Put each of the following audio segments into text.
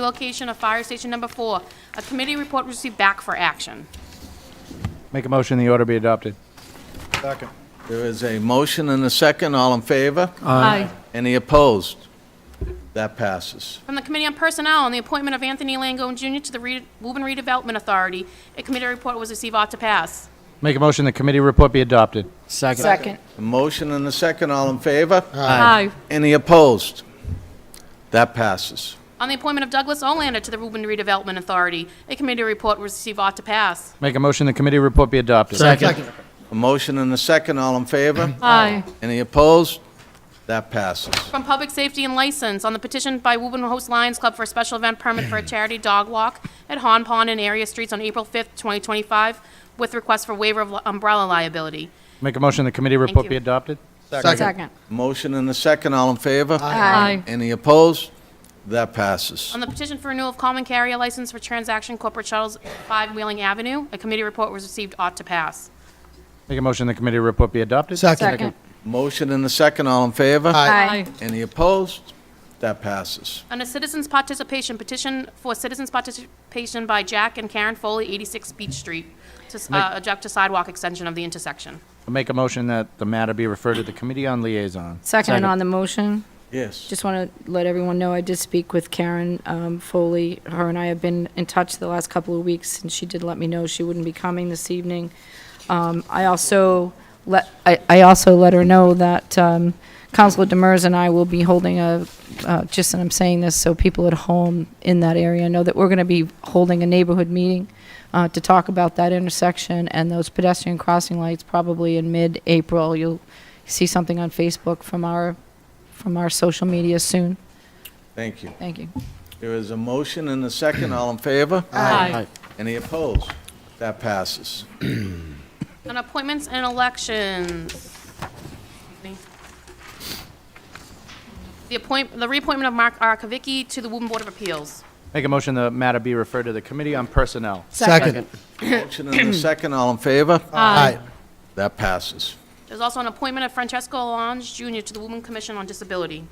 Relocation of Fire Station Number Four. A committee report was received back for action. Make a motion the order be adopted. Second. There is a motion and a second, all in favor? Aye. Any opposed? That passes. From the Committee on Personnel on the appointment of Anthony Langone Jr. to the Re- Woburn Redevelopment Authority. A committee report was received, ought to pass. Make a motion the committee report be adopted. Second. A motion and a second, all in favor? Aye. Any opposed? That passes. On the appointment of Douglas Olander to the Woburn Redevelopment Authority. A committee report was received, ought to pass. Make a motion the committee report be adopted. Second. A motion and a second, all in favor? Aye. Any opposed? That passes. From Public Safety and License on the petition by Woburn Host Lions Club for a special event permit for a charity dog walk at Hon Pond and area streets on April 5th, 2025, with request for waiver of umbrella liability. Make a motion the committee report be you. adopted. Second. Motion and a second, all in favor? Aye. Any opposed? That passes. On the petition for renewal of common carrier license for transaction corporate shuttles, 5 Wheeling Avenue, a committee report was received, ought to pass. Make a motion the committee report be adopted. Second. Motion and a second, all in favor? Aye. Any opposed? That passes. On a citizens' participation petition for citizens' participation by Jack and Karen Foley, 86 Beach Street, to uh, object to sidewalk extension of the intersection. Make a motion that the matter be referred to the committee on liaison. Second on the motion. Yes. Just want to let everyone know, I did speak with Karen um, Foley. Her and I have been in touch the last couple of weeks, and she did let me know she wouldn't be coming this evening. Um, I also let, I I also let her know that um, Counselor Demers and I will be holding a, uh, just, and I'm saying this so people at home in that area know that we're going to be holding a neighborhood meeting uh, to talk about that intersection and those pedestrian crossing lights probably in mid-April. You'll see something on Facebook from our, from our social media soon. Thank you. Thank you. There is a motion and a second, all in favor? Aye. Any opposed? That passes. On appointments and elections. The appoint, the reappointment of Mark Arkavicki to the Woburn Board of Appeals. Make a motion the matter be referred to the committee on personnel. Second. Motion and a second, all in favor? Aye. That passes. There's also an appointment of Francesco Alonso Jr. to the Woburn Commission on Disability.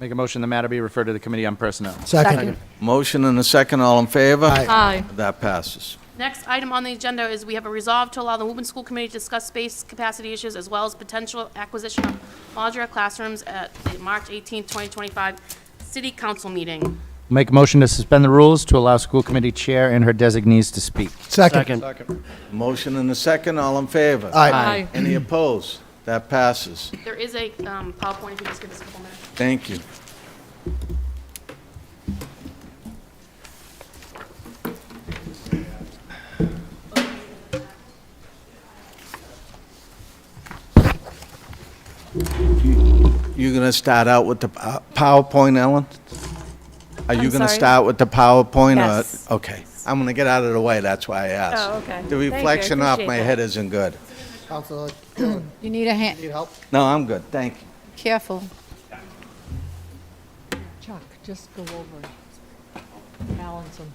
Make a motion the matter be referred to the committee on personnel. Second. Motion and a second, all in favor? Aye. Aye. That passes. Next item on the agenda is we have a resolve to allow the Woburn School Committee to discuss space capacity issues as well as potential acquisition of modular classrooms at the March 18, 2025 City Council meeting. Make a motion to suspend the rules to allow school committee chair and her designees to speak. Second. Motion and a second, all in favor? Aye. Any opposed? That passes. There is a um, PowerPoint, if you just give us a couple minutes. Thank you. You're going to start out with the pow- PowerPoint, Ellen? Are you I'm going to sorry? start with the PowerPoint? or- Yes. Okay. I'm going to get out of the way, that's why I asked. Oh, okay. The Thank you, I reflection off appreciate my that. head isn't good. Counselor, You need a hand, need help? No, I'm good, thank you. careful. Chuck, just go over it. Balance them.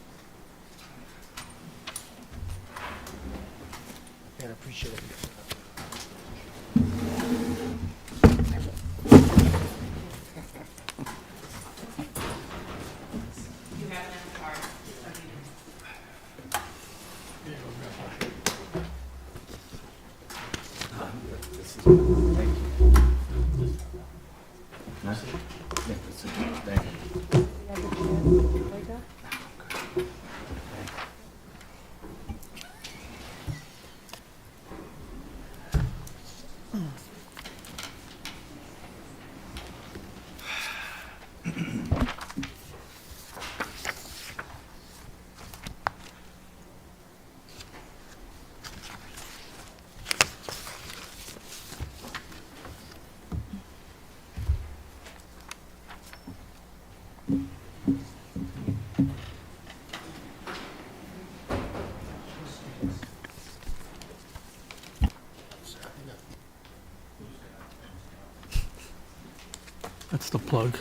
Yeah, I appreciate it. That's the plug.